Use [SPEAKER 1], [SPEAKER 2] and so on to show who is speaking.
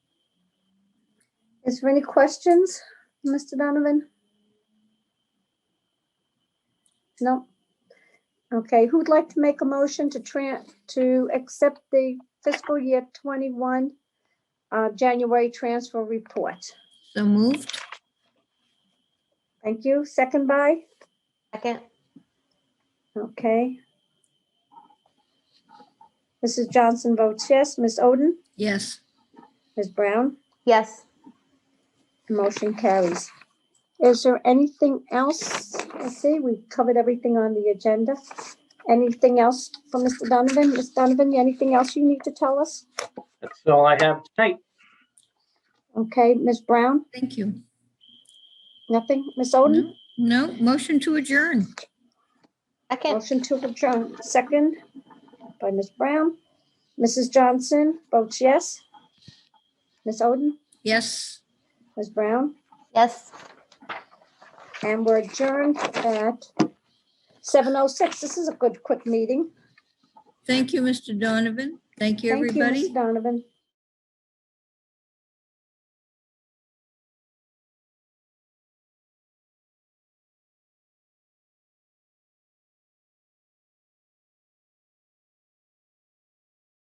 [SPEAKER 1] Is there any questions, Mr. Donovan? No? Okay, who would like to make a motion to tran, to accept the fiscal year twenty-one uh, January transfer report?
[SPEAKER 2] So moved.
[SPEAKER 1] Thank you. Second by?
[SPEAKER 3] Second,
[SPEAKER 1] Okay. Mrs. Johnson votes yes. Ms. Oden?
[SPEAKER 2] Yes.
[SPEAKER 1] Ms. Brown?
[SPEAKER 3] yes.
[SPEAKER 1] Motion carries. Is there anything else? Let's see, we covered everything on the agenda. Anything else for Mr. Donovan? Ms. Donovan, anything else you need to tell us?
[SPEAKER 4] That's all I have tonight.
[SPEAKER 1] Okay, Ms. Brown,
[SPEAKER 2] Thank you.
[SPEAKER 1] nothing? Ms. Oden?
[SPEAKER 2] No, No, motion to adjourn.
[SPEAKER 3] Second,
[SPEAKER 1] Motion to adjourn, second by Ms. Brown. Mrs. Johnson votes yes. Ms. Oden,
[SPEAKER 2] Yes.
[SPEAKER 1] Ms. Brown,
[SPEAKER 3] yes.
[SPEAKER 1] and we're adjourned at 7:06. This is a good, quick meeting.
[SPEAKER 2] Thank you, Mr. Donovan. Thank you,
[SPEAKER 1] Thank you, Ms.
[SPEAKER 2] everybody.
[SPEAKER 1] Donovan.